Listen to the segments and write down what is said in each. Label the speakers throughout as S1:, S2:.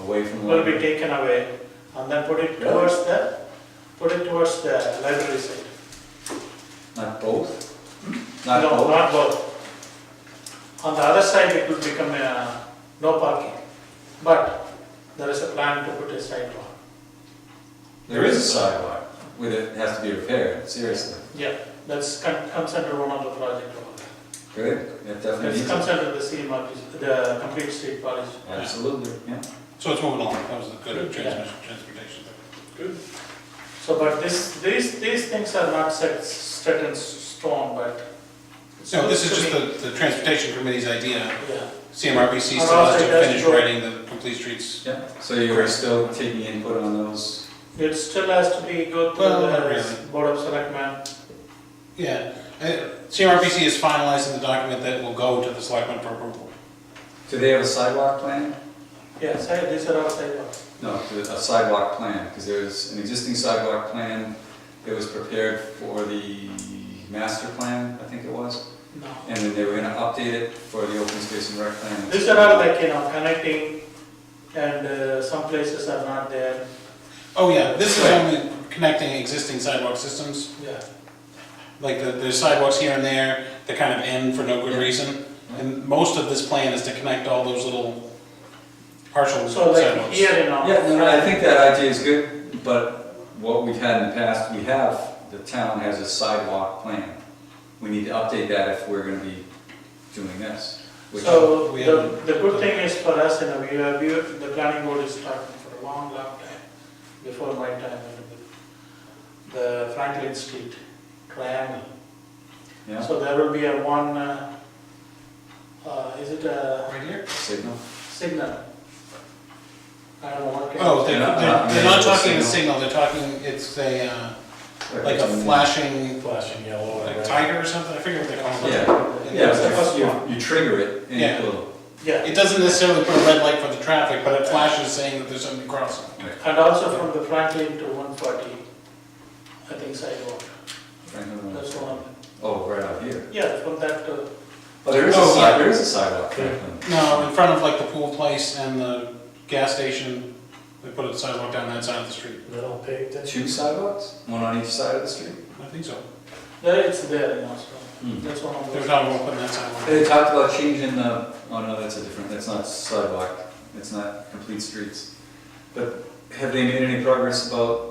S1: away from the
S2: will be
S1: library.
S2: taken away and then put it
S1: Really?
S2: towards the, put it towards the library side.
S1: Not both? Not
S2: Hmm? No,
S1: both?
S2: not both. On the other side, it will become a no parking, but there is a plan to put a sidewalk.
S1: There is a sidewalk, with it has to be repaired, seriously.
S2: Yeah, that's con- comes under one of the project. over there.
S1: Good, it definitely
S2: It
S1: needs
S2: comes
S1: it.
S2: under the CMRPC, the complete street policy.
S1: Absolutely, yeah.
S3: So it's moving along, that was a good
S2: Good, yeah.
S3: transmission, transportation. Good.
S2: So, but this, these, these things are not set, set in s- stone, but. it's
S3: So this is
S2: supposed
S3: just
S2: to
S3: the, the transportation committee's idea,
S2: be- Yeah,
S3: CMRPC still
S2: And
S3: has to
S2: also that's
S3: finish
S2: your-
S3: writing the complete streets.
S1: Yeah, so you are still taking input on those?
S2: it still has to be go through
S3: Well, not
S2: the
S3: really.
S2: board of selectmen.
S3: Yeah, Uh, CMRPC is finalizing the document that will go to the selectmen for approval.
S1: Do they have a sidewalk plan?
S2: Yeah, side, these are all sidewalks.
S1: No, a sidewalk plan, because there's an existing sidewalk plan that was prepared for the master plan, I think it was.
S2: No.
S1: And then they were gonna update it for the open space and rec plan.
S2: These are all like, you know, connecting and uh, some places are not there,
S3: Oh, yeah, this is
S1: Right.
S3: only connecting existing sidewalk systems,
S2: yeah.
S3: like the, there's sidewalks here and there, that kind of end for no
S1: Yeah.
S3: good reason.
S1: Yeah.
S3: And most of this plan is to connect all those little partial
S2: So like
S3: sidewalks.
S2: here, you know.
S1: Yeah, no, no, I think that idea is good, but what we've had in the past, we have, the town has a sidewalk plan. We need to update that if we're gonna be doing this. which-
S2: So
S3: we
S2: the,
S3: haven't-
S2: the good thing is for us, you know, we have, we, the planning board is talking for a long, long time, before my time, and the- the Franklin Street triangle.
S1: Yeah,
S2: So there will be a one, uh, uh, is it a
S3: Right here?
S1: signal.
S2: signal? I don't know what. kind of-
S3: Oh, they're,
S1: Yeah, uh,
S3: they're, they're not
S1: yeah,
S3: talking a
S1: signal.
S3: signal, they're talking, it's a, uh, like a flashing,
S4: Flashing yellow.
S3: like tiger or something, I forget what they call it.
S1: Yeah, yeah,
S2: That's the
S1: it's
S2: first
S1: like
S2: one.
S1: you, you trigger it and
S3: Yeah.
S1: it'll.
S2: Yeah.
S3: It doesn't necessarily put a red light for the traffic, but it flashes saying that there's somebody crossing.
S2: And also from the Franklin to one forty, I think sidewalk,
S1: Right, no, no, no.
S2: that's one.
S1: Oh, right out here.
S2: Yeah, from that to,
S1: Oh, there is a
S3: Oh,
S1: side,
S3: yeah.
S1: there is a sidewalk. right?
S3: No, in front of like the pool place and the gas station, they put a sidewalk down that side of the street.
S4: Little pig thing.
S1: Two sidewalks, one on each side of the street.
S3: I think so.
S2: there it's there, you know, so,
S1: Hmm.
S2: that's one of
S3: They were
S2: those.
S3: talking about putting that sidewalk.
S1: They talked about changing the, oh no, that's a different, that's not sidewalk, it's not complete streets. But have they made any progress about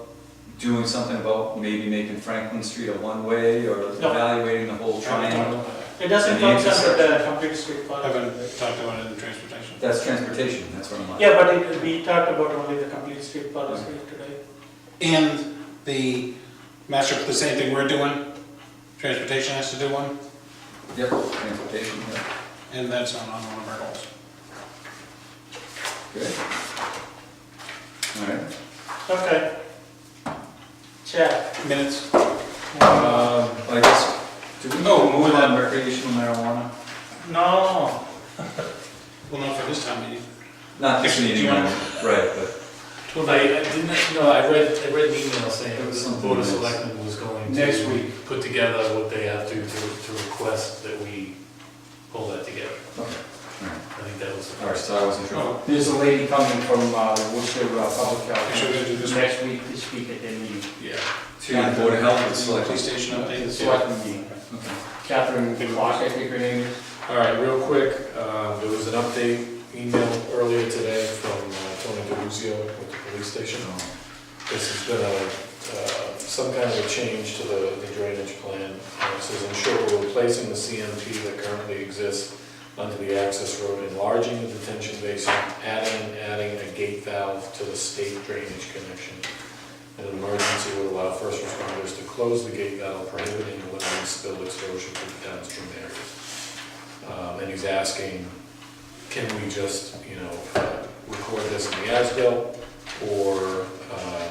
S1: down something about maybe making Franklin Street a one-way or
S2: No.
S1: evaluating the whole triangle?
S2: It doesn't
S1: And the
S2: come under the complete street
S3: I
S2: policy.
S3: haven't talked about it in transportation.
S1: That's transportation, that's what I'm like.
S2: Yeah, but it, we talked about only the complete street policy today.
S3: And the master, the same thing we're doing, transportation has to do one,
S1: Yep, transportation, yeah,
S3: and that's not on one of our goals.
S1: good. All right.
S2: Okay. Chair,
S3: Minutes,
S1: Uh, I guess, do we
S3: Um, Oh,
S1: move on recreational marijuana?
S2: no,
S3: well, not for this time meeting.
S1: Not this
S3: Actually, do
S1: meeting,
S3: you
S1: right,
S3: want-
S1: but
S4: Well, I, I didn't, no, I read, I read an email saying
S1: It
S4: that
S1: was
S4: the
S1: something
S4: board of
S1: else.
S4: selectmen was going to.
S3: Next week.
S4: Put together what they have to, to, to request that we pull that together.
S1: okay, all right.
S4: I think that was the
S1: All right,
S4: first.
S1: so I wasn't sure.
S3: Oh,
S5: There's a lady coming from uh, Worcester uh, Public
S3: Actually, we're
S5: Health
S3: gonna do this
S5: next week to speak at their meeting.
S3: yeah.
S1: To the Board of Health and Select.
S3: Police station update.
S5: The selectmen meeting.
S1: Okay.
S5: Catherine Clark, I think her name is.
S4: All right, real quick, uh, there was an update email earlier today from uh, Tony DeLuzio with the police station. This has been a, uh, some kind of a change to the the drainage plan. Uh, It says ensure we're replacing the CMP that currently exists onto the access road, enlarging the detention basin, adding, adding a gate valve to the state drainage connection. In An emergency would allow first responders to close the gate valve, prohibiting and limiting spill exposure to the downstream areas. Um, And he's asking, can we just, you know, uh, record this in the ASBIL? Or, um,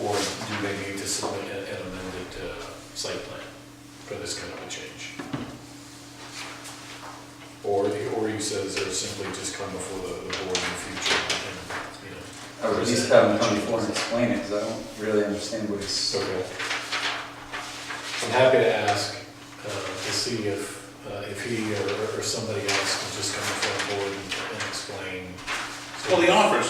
S4: or do they need to submit an an amended uh, site plan for this kind of a change? Or, the- or he says they're simply just come before the the board in the future and, you know.
S1: I would at least have him come forward and explain it, because I don't really understand what he's.
S4: Okay. I'm happy to ask, uh, to see if, uh, if he or, or somebody else can just come forward and explain.
S3: Well, the offers,